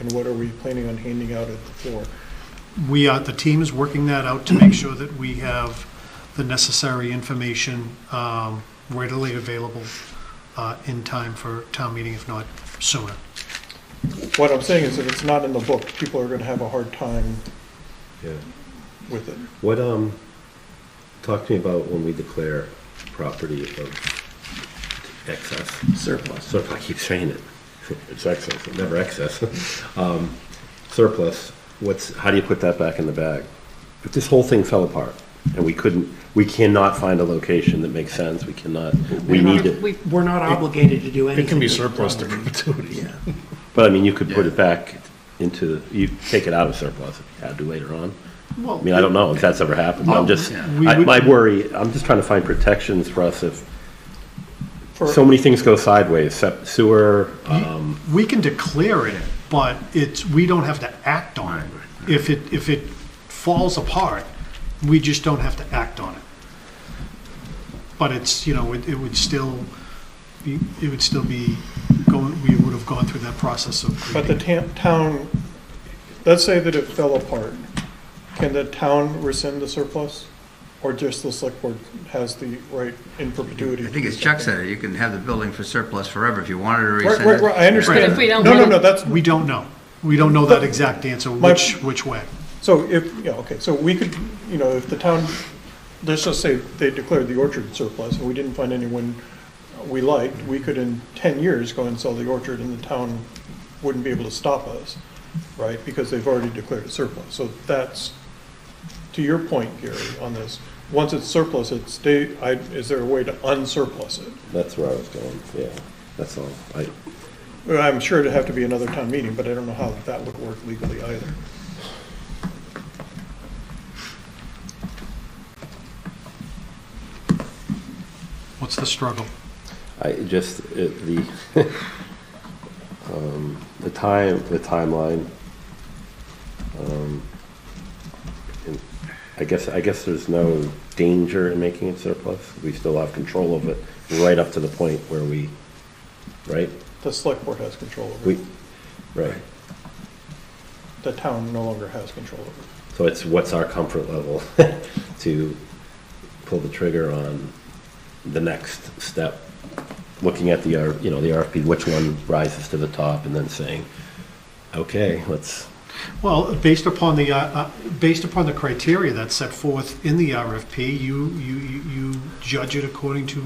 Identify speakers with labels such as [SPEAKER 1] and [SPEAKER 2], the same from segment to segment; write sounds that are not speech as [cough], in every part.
[SPEAKER 1] and what are we planning on handing out at the floor?
[SPEAKER 2] We are, the team is working that out to make sure that we have the necessary information um, readily available uh, in time for town meeting, if not sooner.
[SPEAKER 1] What I'm saying is if it's not in the book, people are gonna have a hard time
[SPEAKER 3] Yeah.
[SPEAKER 1] with it.
[SPEAKER 3] What, um, talk to me about when we declare property of excess.
[SPEAKER 4] surplus.
[SPEAKER 3] So if I keep saying it, [laughs] it's excess, it's never excess. Um, surplus, what's, how do you put that back in the bag? If this whole thing fell apart and we couldn't, we cannot find a location that makes sense, we cannot, we
[SPEAKER 4] We're
[SPEAKER 3] need
[SPEAKER 4] not-
[SPEAKER 3] it.
[SPEAKER 4] we- We're not obligated to do anything.
[SPEAKER 5] It can be surplus to perpetuity.
[SPEAKER 4] Yeah.
[SPEAKER 3] But I mean, you could put it back into, you take it out of surplus if you had to later on.
[SPEAKER 2] Well,
[SPEAKER 3] I mean, I don't know if that's ever happened. I'm just,
[SPEAKER 2] We
[SPEAKER 3] I-
[SPEAKER 2] would-
[SPEAKER 3] my worry, I'm just trying to find protections for us if
[SPEAKER 1] For-
[SPEAKER 3] so many things go sideways, sep- sewer, um,
[SPEAKER 2] We can declare it, but it's, we don't have to act on it. If it, if it falls apart, we just don't have to act on it. But it's, you know, it it would still, be it would still be going, we would have gone through that process of
[SPEAKER 1] But the
[SPEAKER 2] creating.
[SPEAKER 1] tam- town, let's say that it fell apart, can the town rescind the surplus? Or just the select board has the right in perpetuity?
[SPEAKER 6] I think as Chuck said, you can have the building for surplus forever if you wanted to
[SPEAKER 1] Right,
[SPEAKER 6] rescind it.
[SPEAKER 1] right, right, I
[SPEAKER 7] But
[SPEAKER 1] understand.
[SPEAKER 7] if we don't
[SPEAKER 1] No, no,
[SPEAKER 7] want-
[SPEAKER 1] no, that's,
[SPEAKER 2] We don't know. We don't know that exact answer,
[SPEAKER 1] My-
[SPEAKER 2] which, which way.
[SPEAKER 1] so if, yeah, okay, so we could, you know, if the town, let's just say they declared the orchard surplus and we didn't find anyone we liked, we could in ten years go and sell the orchard and the town wouldn't be able to stop us, right? Because they've already declared it surplus. So that's, to your point, Gary, on this, once it's surplus, it's, stay, I, is there a way to unsurplus it?
[SPEAKER 3] that's where I was going, yeah, that's all. I,
[SPEAKER 1] Well, I'm sure it'd have to be another town meeting, but I don't know how that would work legally either.
[SPEAKER 2] What's the struggle?
[SPEAKER 3] I just, it- the, [laughs] um, the time, the timeline. um, and I guess, I guess there's no danger in making it surplus. We still have control of it right up to the point where we, right?
[SPEAKER 1] The select board has control over
[SPEAKER 3] We,
[SPEAKER 1] it.
[SPEAKER 3] right.
[SPEAKER 1] The town no longer has control over it.
[SPEAKER 3] So it's what's our comfort level [laughs] to pull the trigger on the next step? Looking at the, R- you know, the RFP, which one rises to the top, and then saying, okay, let's,
[SPEAKER 2] Well, based upon the, uh, uh, based upon the criteria that's set forth in the RFP, you, you, you you judge it according to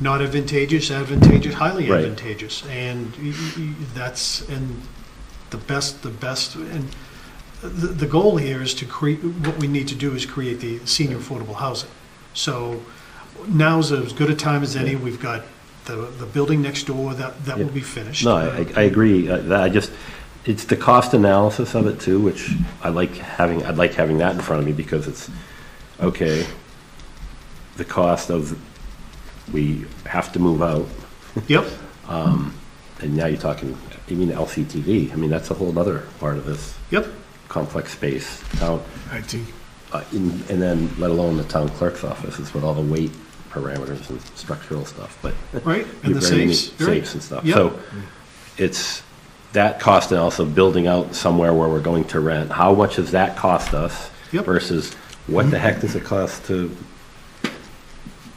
[SPEAKER 2] not advantageous, advantageous, highly
[SPEAKER 3] Right.
[SPEAKER 2] advantageous. And y- y- y- that's, and the best, the best, and the, the goal here is to create, what we need to do is create the senior affordable housing. So now's as good a time as any. We've got the, the building next door that, that will be finished.
[SPEAKER 3] no, I, I agree, uh, that I just, it's the cost analysis of it too, which I like having, I'd like having that in front of me, because it's, okay, the cost of, we have to move out,
[SPEAKER 2] Yep.
[SPEAKER 3] and now you're talking, you mean LCTV, I mean, that's a whole other part of this.
[SPEAKER 2] Yep.
[SPEAKER 3] complex space, town,
[SPEAKER 5] IT.
[SPEAKER 3] uh, in- and then let alone the town clerk's office is with all the weight parameters and structural stuff, but.
[SPEAKER 2] Right, and the
[SPEAKER 3] Very many
[SPEAKER 2] safes, right.
[SPEAKER 3] Safes and stuff.
[SPEAKER 2] Yep.
[SPEAKER 3] So it's that cost and also building out somewhere where we're going to rent. How much does that cost us?
[SPEAKER 2] Yep.
[SPEAKER 3] Versus what the heck does it cost to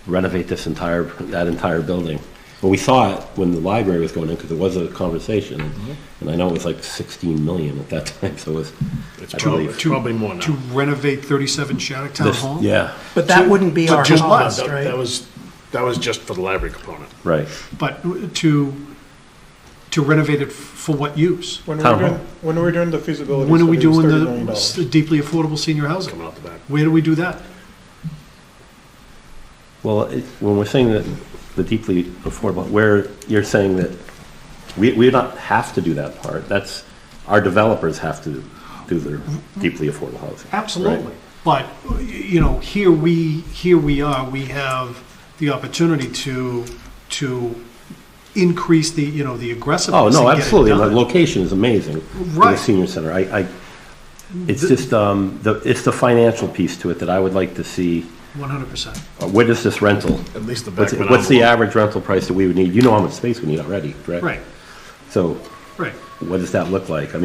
[SPEAKER 3] renovate this entire, that entire building? Well, we saw it when the library was going in because it was a conversation.
[SPEAKER 2] Mm-hmm.
[SPEAKER 3] And I know it was like 16 million at that [laughs] time, so it was.
[SPEAKER 5] It's
[SPEAKER 3] I
[SPEAKER 5] probably,
[SPEAKER 3] believe-
[SPEAKER 5] Oh, it's probably more
[SPEAKER 2] to
[SPEAKER 5] now.
[SPEAKER 2] renovate 37 Shattuck Town
[SPEAKER 3] This-
[SPEAKER 2] Hall?
[SPEAKER 3] Yeah,
[SPEAKER 4] But that wouldn't be
[SPEAKER 2] But
[SPEAKER 4] our
[SPEAKER 2] just-
[SPEAKER 5] That-
[SPEAKER 2] Plus,
[SPEAKER 4] cost,
[SPEAKER 5] That that
[SPEAKER 4] right?
[SPEAKER 5] was, that was just for the library component.
[SPEAKER 3] right.
[SPEAKER 2] But to, to renovate it for what use?
[SPEAKER 1] When are
[SPEAKER 3] Town
[SPEAKER 1] we doing,
[SPEAKER 3] hall.
[SPEAKER 1] when are we doing the feasibility
[SPEAKER 2] When are we
[SPEAKER 1] study, it's
[SPEAKER 2] doing
[SPEAKER 1] thirty million
[SPEAKER 2] the s-
[SPEAKER 1] dollars.
[SPEAKER 2] deeply affordable senior housing?
[SPEAKER 5] Coming out the back.
[SPEAKER 2] Where do we do that?
[SPEAKER 3] Well, it- when we're saying that the deeply affordable, where you're saying that we, we don't have to do that part, that's, our developers have to do their deeply affordable housing. right?
[SPEAKER 2] Absolutely. But, y- you know, here we, here we are, we have the opportunity to, to increase the, you know, the
[SPEAKER 3] Oh,
[SPEAKER 2] aggressiveness.
[SPEAKER 3] no,
[SPEAKER 2] and get it
[SPEAKER 3] absolutely, and the
[SPEAKER 2] done.
[SPEAKER 3] location is amazing. for The
[SPEAKER 2] Right.
[SPEAKER 3] senior center, I, I, it's just, um, the, it's the financial piece to it that I would like to see,
[SPEAKER 2] 100%.
[SPEAKER 3] uh, what is this rental?
[SPEAKER 5] At least the
[SPEAKER 3] What's,
[SPEAKER 5] back.
[SPEAKER 3] what's the average rental price that we would need? You know how much space we need already, correct?
[SPEAKER 2] Right,
[SPEAKER 3] So
[SPEAKER 2] right.
[SPEAKER 3] what does that look like? I mean,